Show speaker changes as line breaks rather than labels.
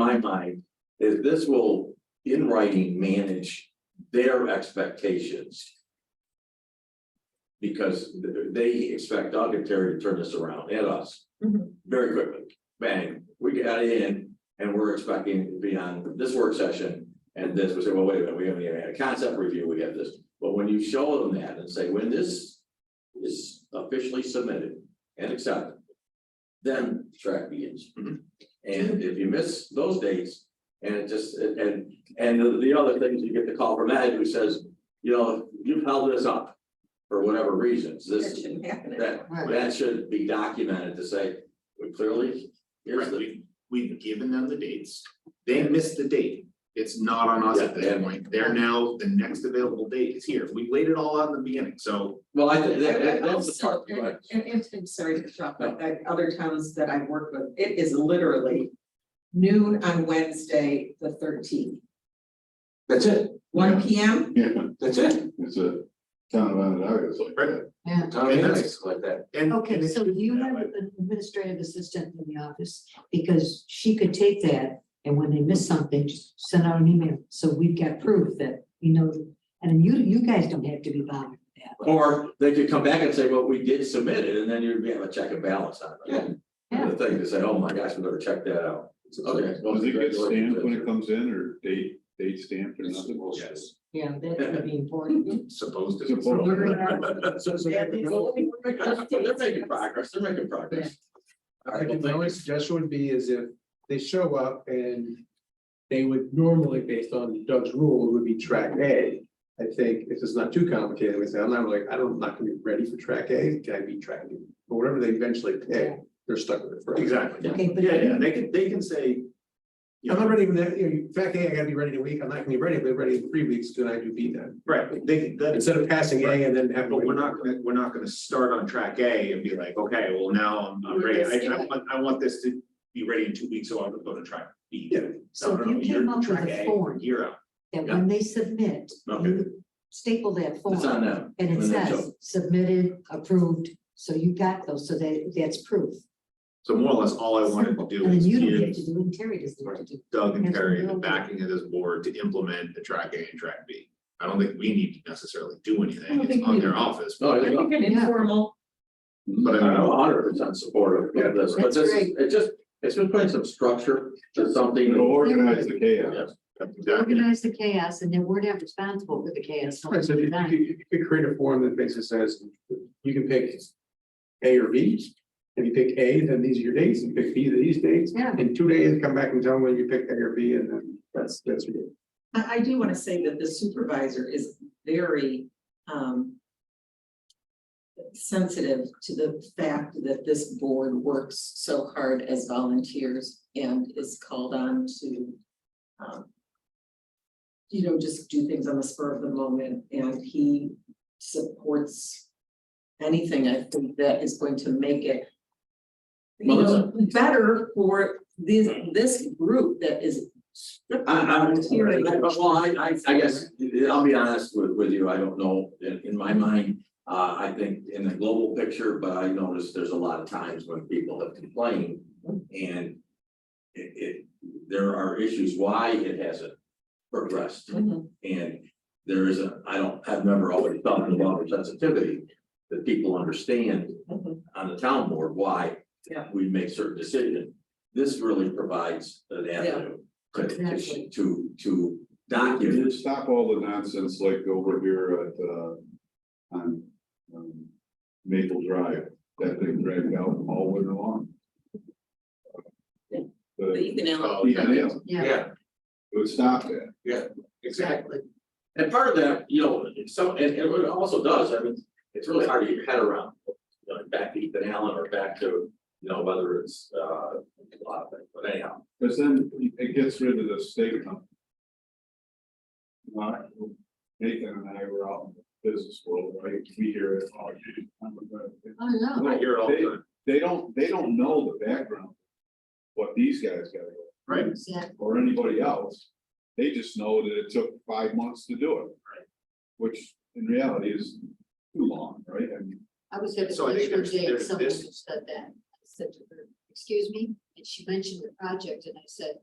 my mind is this will, in writing, manage their expectations. Because th- they expect Doug and Terry to turn this around at us
Mhm.
very quickly. Bang, we got it in and we're expecting it to be on this work session. And this, we say, well, wait a minute, we haven't even had a concept review, we have this. But when you show them that and say, when this is officially submitted and accepted, then the track begins. And if you miss those dates, and it just, and, and the- the other thing is you get the call from Ed who says, you know, you've held this up for whatever reasons,
That
this,
shouldn't happen.
that, that should be documented to say, we clearly, here's
Right,
the.
we, we've given them the dates, they missed the date, it's not on us at
Yeah,
this
yeah.
point, they're now, the next available date is here, we laid it all out in the beginning, so.
Well, I think that, that- that's the
Also,
part,
and,
right?
and, and I'm sorry to interrupt, but that other towns that I've worked with, it is literally noon on Wednesday, the thirteenth.
That's it,
One P M,
Yeah,
that's it.
it's a town of Onondaga, it's like that.
Tommy, that's like that.
And.
Okay,
and
so
it's-
you have an administrative assistant in the office, because she could take that, and when they miss something, just send out an email, so we've got proof that, you know, and you, you guys don't have to be bothered with that.
Or they could come back and say, well, we did submit it, and then you'd have a check and balance on it.
Yeah.
The thing to say, oh my gosh, we better check that out. Okay. well,
Does it get stamped when
congratulations.
it comes in or date, date stamped or nothing?
Yes,
Yeah, that would be important.
supposed to.
Supposed to.
So, so they're well, they're making- they're making progress, they're making progress. All
I
right, well,
think
thank
the only
you.
suggestion would be is if they show up and. They would normally, based on Doug's rule, would be track A. I think if it's not too complicated, we say, I'm not like, I don't, I'm not gonna be ready for track A, can I be track B? But whatever they eventually pick, they're stuck with it forever.
Exactly,
Okay, Uh-huh. but
yeah, yeah, they can, they can say. You
I'm
know,
not ready, for that, you know, track A, I gotta be ready in a week, I'm not gonna be ready, but ready in three weeks, then I do B then.
right, they, can- that,
Instead of passing A and then having.
but we're not gonna, we're not gonna start on track A and be like, okay, well, now I'm, I'm
We're
ready, I, I
gonna
want, I want this to be ready in two weeks, so I'm gonna go to track B.
Yeah.
No,
so if
no, no,
you
you're
came up with
track
a
A,
form,
You're out.
that when they submit,
Okay.
you staple that
It's on
form,
them.
and it
And then
says submitted, approved, so you got those, so that, that's proof.
So more or less, all I wanted to do
And then
is
you don't have
give
to do, it, and Terry doesn't have to do. it.
Doug and
There's
Terry the
no-
backing of this board to implement the track A and track B. I don't think we need to necessarily do
I don't
anything, it's
think
on
we-
their office,
No,
but
I think-
an
Yeah.
informal,
but I
I'm
don't know,
hundred percent supportive of this, but
That's
this, is-
great.
it just, it's been putting some structure to something.
It'll organize the chaos.
Yes.
that's exactly,
Organize the chaos, and then we're not responsible for the chaos.
Right, so if you, if you- if you could create a form that basically says, you can pick A or B. If you pick A, then these are your dates, and you pick B, then these dates,
Yeah.
in two days, come back and tell them when you picked A or B, and then that's, that's what you do.
I, I do wanna say that the supervisor is very, um. Sensitive to the fact that this board works so hard as volunteers and is called on to, um. You know, just do things on the spur of the moment, and he supports anything I think that is going to make it. You know, better for this, this group that is.
I, I'm, well, I, I, I guess, I'll be honest with, with you, I don't know, in, in my mind, uh, I think in the global picture, but I noticed there's a lot of times when people have complained and it, it, there are issues why it hasn't progressed.
Mm-hmm.
And there is a, I don't, I've never always thought about sensitivity, that people understand
Mm-hmm.
on the town board why
Yeah.
we make certain decisions. This really provides an avenue to, to,
Exactly.
to, to
You
document.
Stop all the nonsense like over here at, uh, on, um, Maple Drive, that thing dragged out all winter long. The,
Ethan
oh, yeah,
yeah,
Yeah.
it would stop that.
exactly,
And part of that, you know, so, and and what it also does, I mean, it's really hard to get your head around. you know, Back to Ethan Allen or back to, you know, whether it's, uh, a lot of things, but anyhow,
Because then it gets rid of the state company. Like, Nathan and I were out in the business world, right, we hear it all.
Oh, no.
I hear it all the time,
They don't, they don't know the background. What these guys got, to
right?
go, or anybody else, they just know that it took five months to do it. Right. Which in reality is too long, right, I mean,
I was at a
So I think there's-
commissioner's day,
there's
someone
this-
said that, I said to her, excuse me, and she mentioned the project, and I said,